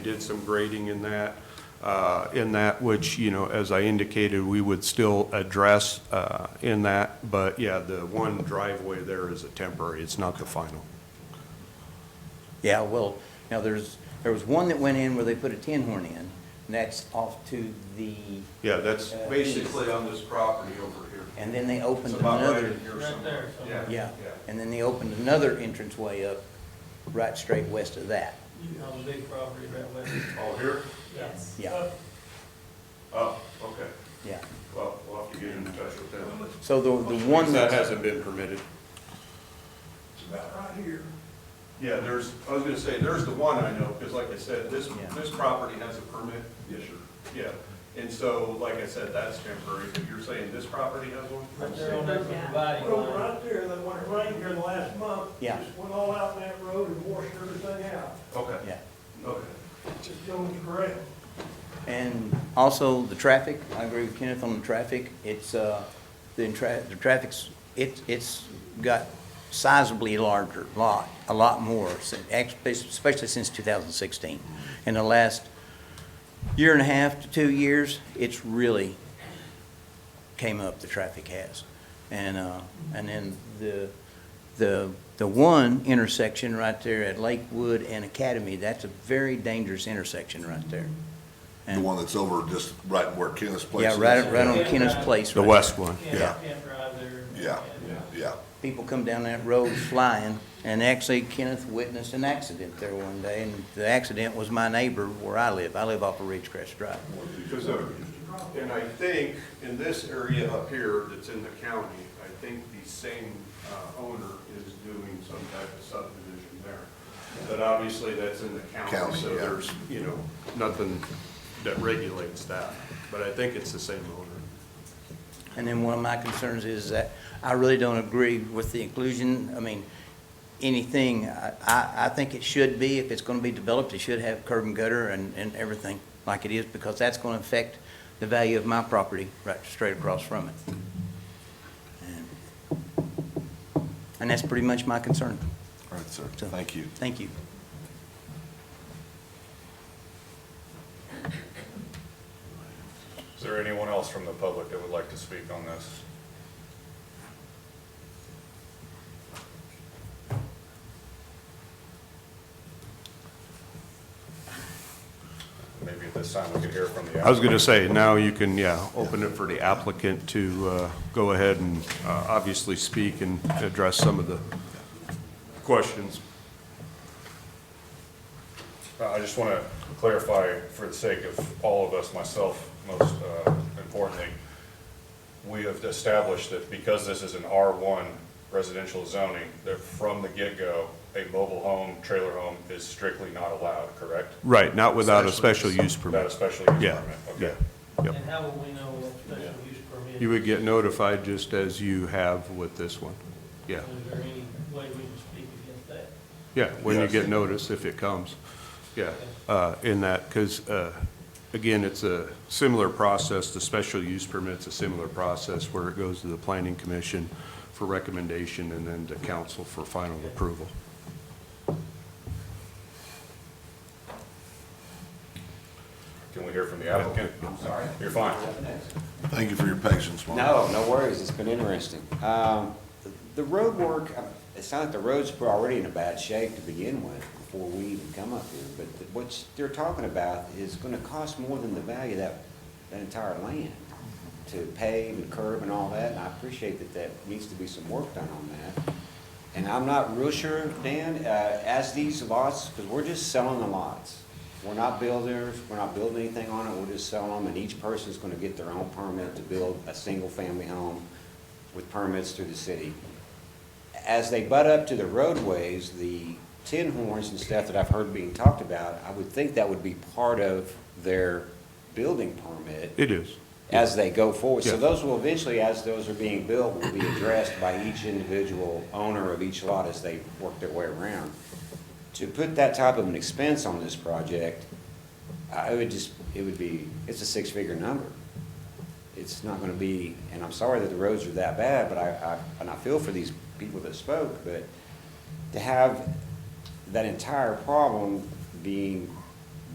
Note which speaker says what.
Speaker 1: did some grading in that, uh, in that, which, you know, as I indicated, we would still address uh, in that, but yeah, the one driveway there is a temporary, it's not the final.
Speaker 2: Yeah, well, now there's, there was one that went in where they put a tin horn in, and that's off to the,
Speaker 1: Yeah, that's
Speaker 2: Uh,
Speaker 1: basically on this property over here.
Speaker 2: and then they opened
Speaker 1: It's about right
Speaker 2: another.
Speaker 1: in here
Speaker 3: Right
Speaker 1: somewhere.
Speaker 3: there, somewhere.
Speaker 2: Yeah, and then they opened another entranceway up, right straight west of that.
Speaker 3: You have a big property right west.
Speaker 1: Oh, here?
Speaker 3: Yes.
Speaker 2: Yeah.
Speaker 3: Uh,
Speaker 1: Oh, okay.
Speaker 2: Yeah.
Speaker 1: Well, we'll have to get in touch with them.
Speaker 2: So the, the one
Speaker 1: That
Speaker 2: that's,
Speaker 1: hasn't been permitted.
Speaker 4: It's about right here.
Speaker 1: Yeah, there's, I was gonna say, there's the one I know, because like I said, this,
Speaker 2: Yeah.
Speaker 1: this property has a permit. Yes, sir. Yeah, and so, like I said, that's temporary, but you're saying this property has one?
Speaker 3: Right there on that
Speaker 5: Yeah.
Speaker 3: dividing
Speaker 4: Well,
Speaker 3: line.
Speaker 4: right there, that when it rained here last month.
Speaker 2: Yeah.
Speaker 4: Just went all out in that road and washed everything out.
Speaker 1: Okay,
Speaker 2: yeah.
Speaker 1: okay.
Speaker 4: Just going correct.
Speaker 2: And also the traffic, I agree with Kenneth on the traffic. It's, uh, the tra, the traffic's, it's, it's got sizably larger, lot, a lot more, si- ex- especially since 2016. In the last year and a half to two years, it's really came up, the traffic has. And, uh, and then the, the, the one intersection right there at Lakewood and Academy, that's a very dangerous intersection right there.
Speaker 6: The one that's over just right where Kenneth's place
Speaker 2: Yeah,
Speaker 6: is.
Speaker 2: right, right on Kenneth's Place. right
Speaker 1: one.
Speaker 3: Can't,
Speaker 6: Yeah.
Speaker 3: can't drive there.
Speaker 6: Yeah,
Speaker 3: Yeah.
Speaker 6: yeah.
Speaker 2: there. People come down that road flying, and actually Kenneth witnessed an accident there one day, and the accident was my neighbor where I live. I live off of Ridgecrest Drive.
Speaker 1: Because, uh, and I think in this area up here that's in the county, I think the same uh, owner is doing some type of subdivision there. But obviously, that's in the county,
Speaker 6: County,
Speaker 1: so
Speaker 6: yeah.
Speaker 1: there's, you know, nothing that regulates that. But I think it's the same owner.
Speaker 2: And then one of my concerns is that I really don't agree with the inclusion, I mean, anything, I, I I think it should be, if it's gonna be developed, it should have curb and gutter and, and everything like it is, because that's gonna affect the value of my property right straight across from it. And- And that's pretty much my concern.
Speaker 6: All right, sir.
Speaker 2: So-
Speaker 6: Thank you.
Speaker 2: Thank you.
Speaker 7: Is there anyone else from the public that would like to speak on this? Maybe at this time we could hear from the.
Speaker 1: I was going to say, now you can, yeah, open it for the applicant to uh, go ahead and uh, obviously speak and address some of the questions.
Speaker 7: Uh, I just want to clarify, for the sake of all of us, myself most uh, importantly, we have established that because this is an R1 residential zoning, that from the get-go, a mobile home, trailer home is strictly not allowed, correct?
Speaker 1: Right, not without a special use
Speaker 7: Without a
Speaker 1: permit.
Speaker 7: special use
Speaker 1: Yeah,
Speaker 7: permit,
Speaker 1: yeah,
Speaker 7: okay.
Speaker 1: yep.
Speaker 3: And how will we know what special use permit?
Speaker 1: You would get notified just as you have with this one. Yeah,
Speaker 3: Is there any way we can speak against that?
Speaker 1: yeah, when you
Speaker 7: Yes.
Speaker 1: get notice, if it comes. Yeah, uh, in that, because, again, it's a similar process, the special use permit's a similar process where it goes to the planning commission for recommendation and then to council for final approval.
Speaker 7: Can we hear from the applicant? I'm sorry. You're fine.
Speaker 6: Thank you for your patience, Mark.
Speaker 8: No, no worries, it's been interesting. Um, The road work, uh, it's not that the roads were already in a bad shape to begin with before we even come up here, but th- what they're talking about is gonna cost more than the value of that, that entire land to pave and curb and all that, and I appreciate that that needs to be some work done on that. And I'm not real sure, Dan, uh, as these lots, because we're just selling the lots. We're not builders, we're not building anything on it, we're just selling them, and each person's gonna get their own permit to build a single-family home with permits through the city. As they butt up to the roadways, the tin horns and stuff that I've heard being talked about, I would think that would be part of their building permit
Speaker 1: It is.
Speaker 8: as they go forward.
Speaker 1: Yeah.
Speaker 8: So those will eventually, as those are being built, will be addressed by each individual owner of each lot as they work their way around. To put that type of an expense on this project, I would just, it would be, it's a six-figure number. It's not gonna be, and I'm sorry that the roads are that bad, but I, I, and I feel for these people that spoke, but to have that entire problem being